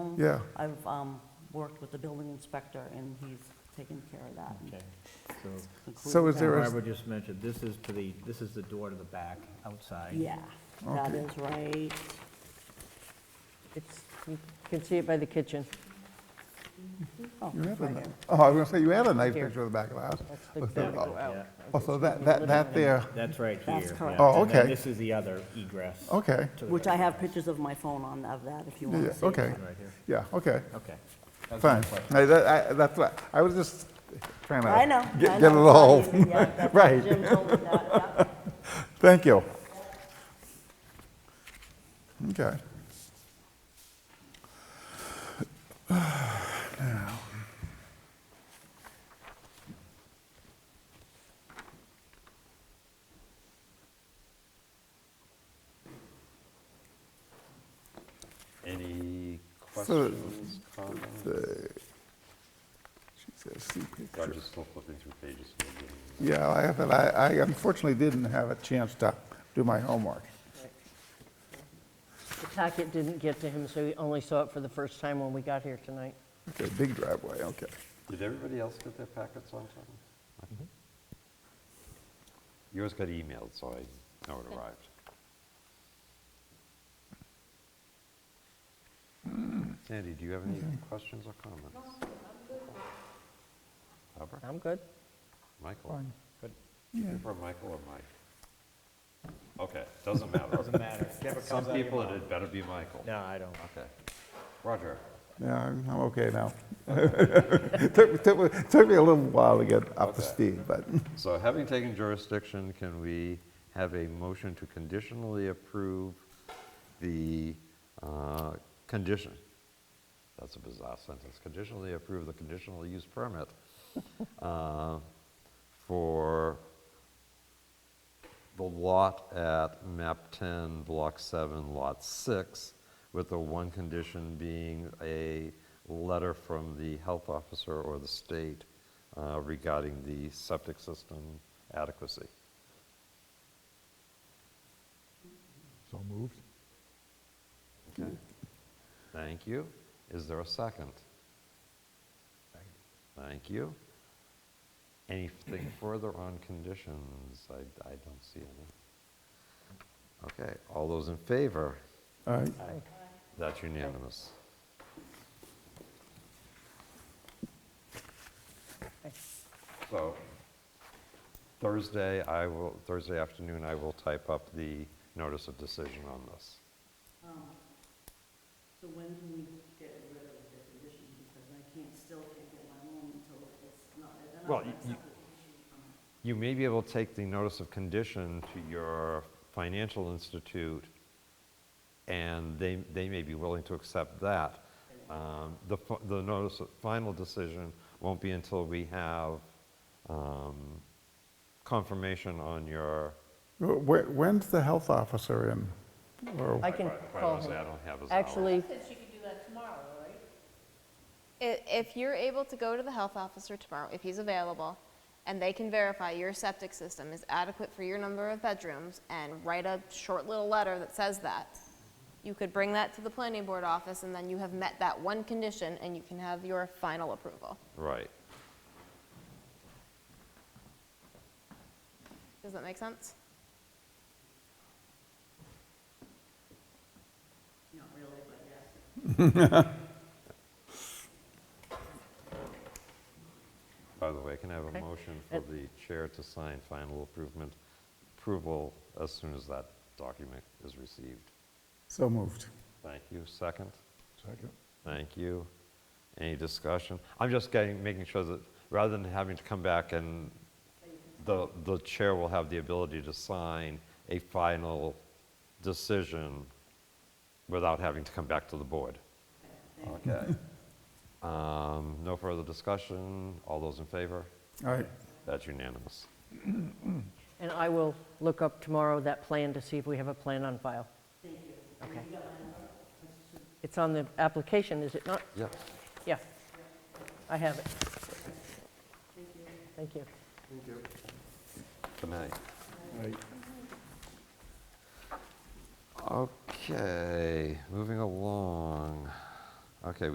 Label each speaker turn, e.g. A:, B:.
A: Yeah.
B: I've um, worked with the building inspector, and he's taken care of that. and
C: Okay, so,
B: included
A: So is
B: that.
A: there a-
C: Barbara just mentioned, this is to the, this is the door to the back outside.
B: Yeah, that
A: Okay.
B: is right.
D: It's, you can see it by the kitchen.
B: Oh,
A: You have a,
B: right
A: ni-
B: here.
A: oh, I was gonna say, you had a nice
D: Here.
A: picture of the back of the house.
D: That's the
A: Oh, so-
D: back
A: oh,
D: out.
C: Yeah,
A: Oh, so that, that, that there,
C: that's right here.
B: That's
C: yeah.
B: correct.
A: Oh,
C: And then
A: okay.
C: this is the other egress.
A: okay,
C: to the
B: Which
C: right.
B: I have pictures of my phone on of that, if you want
A: yeah,
B: to see.
A: okay,
C: Right here,
A: yeah, okay,
C: okay. That's my
A: fine.
C: question.
A: I, that- I, that's what, I was just trying to.
B: I know. I
A: Get get it
B: know, it's
A: all,
B: not easy, yeah, that's-
A: Right.
B: Jim told me that, yeah.
A: thank you. Okay.
E: Any
A: So-
E: questions, comments?
A: She says, see picture.
E: I'm just flipping through pages.
A: Yeah, I have, but I, I unfortunately didn't have a chance to do my homework.
D: The packet didn't get to him, so he only saw it for the first time when we got here tonight.
A: Okay, big driveway, okay.
E: Did everybody else get their packets on time? Yours got emailed, so I know it arrived. Sandy, do you have any questions or comments? Barbara?
D: I'm good.
E: Michael?
A: Fine.
C: Good.
A: Yeah.
E: You prefer Michael or Mike? Okay, doesn't matter.
C: Doesn't matter. Never
E: Some
C: comes out of your
E: people, it
C: mouth.
E: had better be Michael.
C: No, I don't.
E: Okay. Roger?
A: Yeah, I'm I'm okay now. Took took- took me a little while to get up to
E: Okay.
A: speed, but,
E: So having taken jurisdiction, can we have a motion to conditionally approve the uh, condition? That's a bizarre sentence. Conditionally approve the conditional use permit uh, for the lot at map 10, block 7, lot 6, with the one condition being a letter from the health officer or the state uh, regarding the septic system adequacy.
F: So moved.
E: Okay. Thank you. Is there a second? Thank you. Anything further on conditions? I, I don't see any. Okay, all those in favor?
A: all right.
E: That's unanimous. So Thursday, I will, Thursday afternoon, I will type up the notice of decision on this.
B: Um, So when can we get rid of the condition, because I can't, still can't get my loan until it's not, they're
E: Well,
B: not
E: y-
B: accepted.
E: You may be able to take the notice of condition to your financial institute, and they, they may be willing to accept that. Um, The, fi- the notice, of- final decision won't be until we have um, confirmation on your.
A: Wh- wh- When's the health officer in? Or-
D: I can
E: Quite
D: call
E: honestly, I
D: him.
E: don't have his hour.
D: Actually,
G: I- If you're able to go to the health officer tomorrow, if he's available, and they can verify your septic system is adequate for your number of bedrooms and write a short little letter that says that, you could bring that to the planning board office and then you have met that one condition and you can have your final approval.
E: Right.
G: Does that make sense?
E: By the way, can I have a motion for the chair to sign final improvement, approval as soon as that document is received?
A: So moved.
E: Thank you. Second?
F: Second.
E: Thank you. Any discussion? I'm just getting, making sure that, rather than having to come back and the, the chair will have the ability to sign a final decision without having to come back to the board. Okay. Um, No further discussion. All those in favor?
A: All right,
E: That's unanimous.
D: and I will look up tomorrow that plan to see if we have a plan on file. Thank you. Okay. It's on the application, is it not?
E: Yep.
D: Yeah, I have it. Thank you.
E: Good night.
F: Right.
E: Okay, moving along. Okay,